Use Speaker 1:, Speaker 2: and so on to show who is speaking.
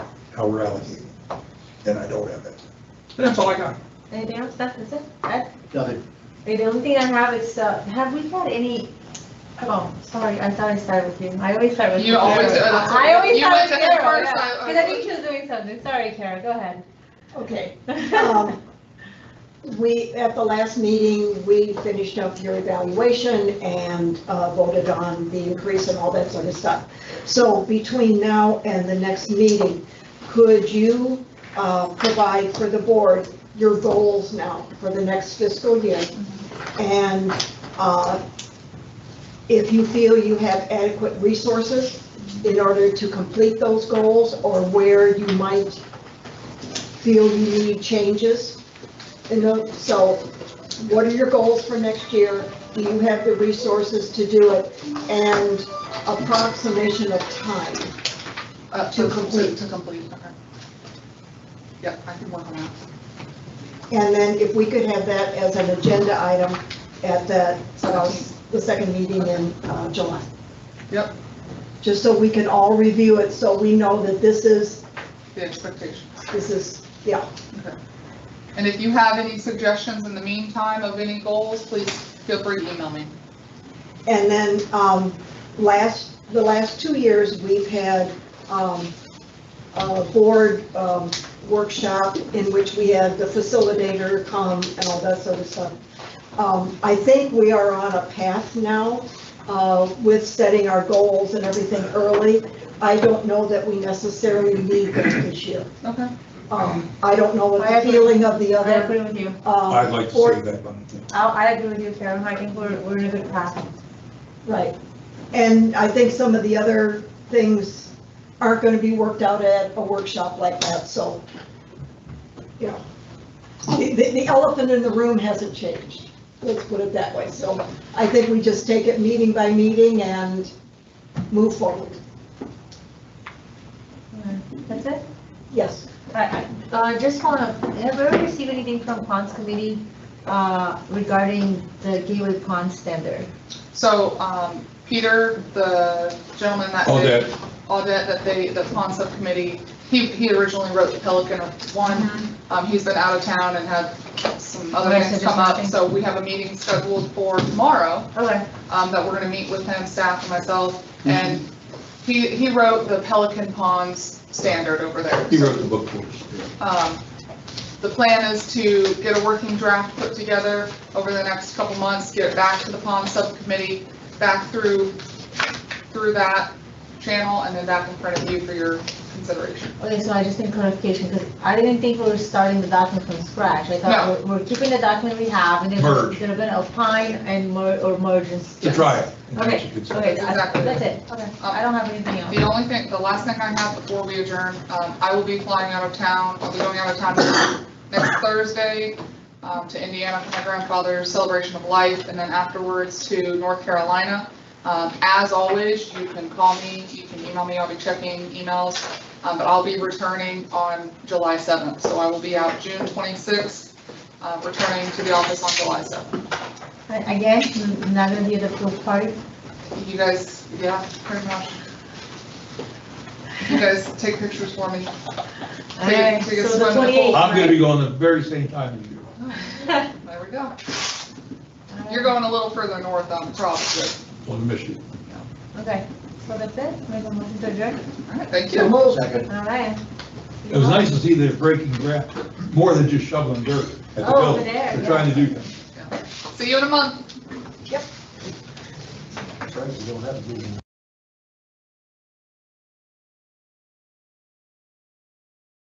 Speaker 1: how we're allocated. And I don't have that. And that's all I got.
Speaker 2: Anything else? That- That's it? That-
Speaker 3: Nothing.
Speaker 2: The only thing I have is, uh, have we had any, oh, sorry, I thought I started with you. I always start with you.
Speaker 4: You always-
Speaker 2: Carol.
Speaker 4: that's-
Speaker 2: I always
Speaker 4: you
Speaker 2: start
Speaker 4: went
Speaker 2: with
Speaker 4: to him
Speaker 2: Carol,
Speaker 4: first, I- I-
Speaker 2: because I think she was doing something. Sorry, Carol, go ahead.
Speaker 5: Okay. um, We, at the last meeting, we finished up your evaluation and uh, voted on the increase and all that sort of stuff. So between now and the next meeting, could you uh, provide for the board your goals now for the next fiscal year? And uh, if you feel you have adequate resources in order to complete those goals or where you might feel you need changes? And the- so what are your goals for next year? Do you have the resources to do it? And approximation of time.
Speaker 4: Uh,
Speaker 5: To complete.
Speaker 4: To complete, okay. Yep, I can work on that.
Speaker 5: And then if we could have that as an agenda item at the, uh, the second meeting in uh, July.
Speaker 4: Yep.
Speaker 5: Just so we can all review it, so we know that this is,
Speaker 4: The expectation.
Speaker 5: this is, yeah.
Speaker 4: And if you have any suggestions in the meantime of any goals, please feel free to email me.
Speaker 5: And then, um, last, the last two years, we've had, um, a board, um, workshop in which we had the facilitator come and all that sort of stuff. Um, I think we are on a path now, uh, with setting our goals and everything early. I don't know that we necessarily need them this year.
Speaker 4: Okay.
Speaker 5: Um, I don't know what
Speaker 2: I
Speaker 5: the
Speaker 2: agree.
Speaker 5: feeling of the
Speaker 2: I
Speaker 5: other,
Speaker 2: agree with you.
Speaker 5: uh.
Speaker 1: I'd like to
Speaker 5: board-
Speaker 1: say that one thing.
Speaker 2: I, Oh, I agree with you, Carol. I think we're, we're in a good path.
Speaker 5: Right. And I think some of the other things aren't gonna be worked out at a workshop like that, so, you know. The, the- the elephant in the room hasn't changed, let's put it that way. So I think we just take it meeting by meeting and move forward.
Speaker 2: That's it?
Speaker 5: Yes,
Speaker 2: I, I, uh, just following up, have we already received anything from Ponds Committee, uh, regarding the Gateway Pond standard?
Speaker 4: So, um, Peter, the gentleman that
Speaker 1: Oh,
Speaker 4: did,
Speaker 1: that,
Speaker 4: Audette, that they, the pond subcommittee, he, he originally wrote the Pelican one. Um, he's been out of town and had some other
Speaker 2: Okay, so
Speaker 4: things
Speaker 2: just
Speaker 4: come up,
Speaker 2: nothing.
Speaker 4: so we have a meeting scheduled for tomorrow.
Speaker 2: Okay,
Speaker 4: um, that we're gonna meet with him, staff, and myself, and he, he wrote the Pelican Ponds standard over there.
Speaker 1: he wrote the book for us.
Speaker 4: Um, The plan is to get a working draft put together over the next couple months, get it back to the pond subcommittee, back through, through that channel, and then back in front of you for your consideration.
Speaker 2: okay, so I just need clarification, because I didn't think we were starting the document from scratch. I thought we're, we're keeping the document we have, and then we're
Speaker 1: Merge.
Speaker 2: gonna gonna opine and mer, or merge and. s-
Speaker 1: To try it.
Speaker 2: Okay, okay, I-
Speaker 4: Exactly.
Speaker 2: that's it. Okay. I don't have anything else.
Speaker 4: The only thing, the last thing I have before we adjourn, um, I will be flying out of town, I'll be going out of town next Thursday, um, to Indiana for my grandfather's celebration of life, and then afterwards to North Carolina. Um, as always, you can call me, you can email me, I'll be checking emails, um, but I'll be returning on July seventh, so I will be out June twenty-sixth, uh, returning to the office on July seventh.
Speaker 2: And Again, I'm not gonna be at the pool party.
Speaker 4: You guys, yeah, pretty much. You guys take pictures for me.
Speaker 2: All right,
Speaker 4: take a swim in
Speaker 2: so the
Speaker 4: the pool.
Speaker 2: twenty-eighth,
Speaker 1: I'm gonna be going the very same time as you.
Speaker 2: right?
Speaker 4: There we go. You're going a little further north, um, probably.
Speaker 1: On the mission.
Speaker 2: Okay, so that's it, make a motion to adjourn,
Speaker 4: All right, thank
Speaker 3: So
Speaker 4: you.
Speaker 3: moved. Second.
Speaker 2: all right.
Speaker 1: It was nice to see they're breaking ground, more than just shoveling dirt at the
Speaker 2: Oh, over
Speaker 1: building.
Speaker 2: there,
Speaker 1: They're
Speaker 2: yeah.
Speaker 1: trying to do things.
Speaker 4: See you in a month.
Speaker 3: Right, you don't have to be in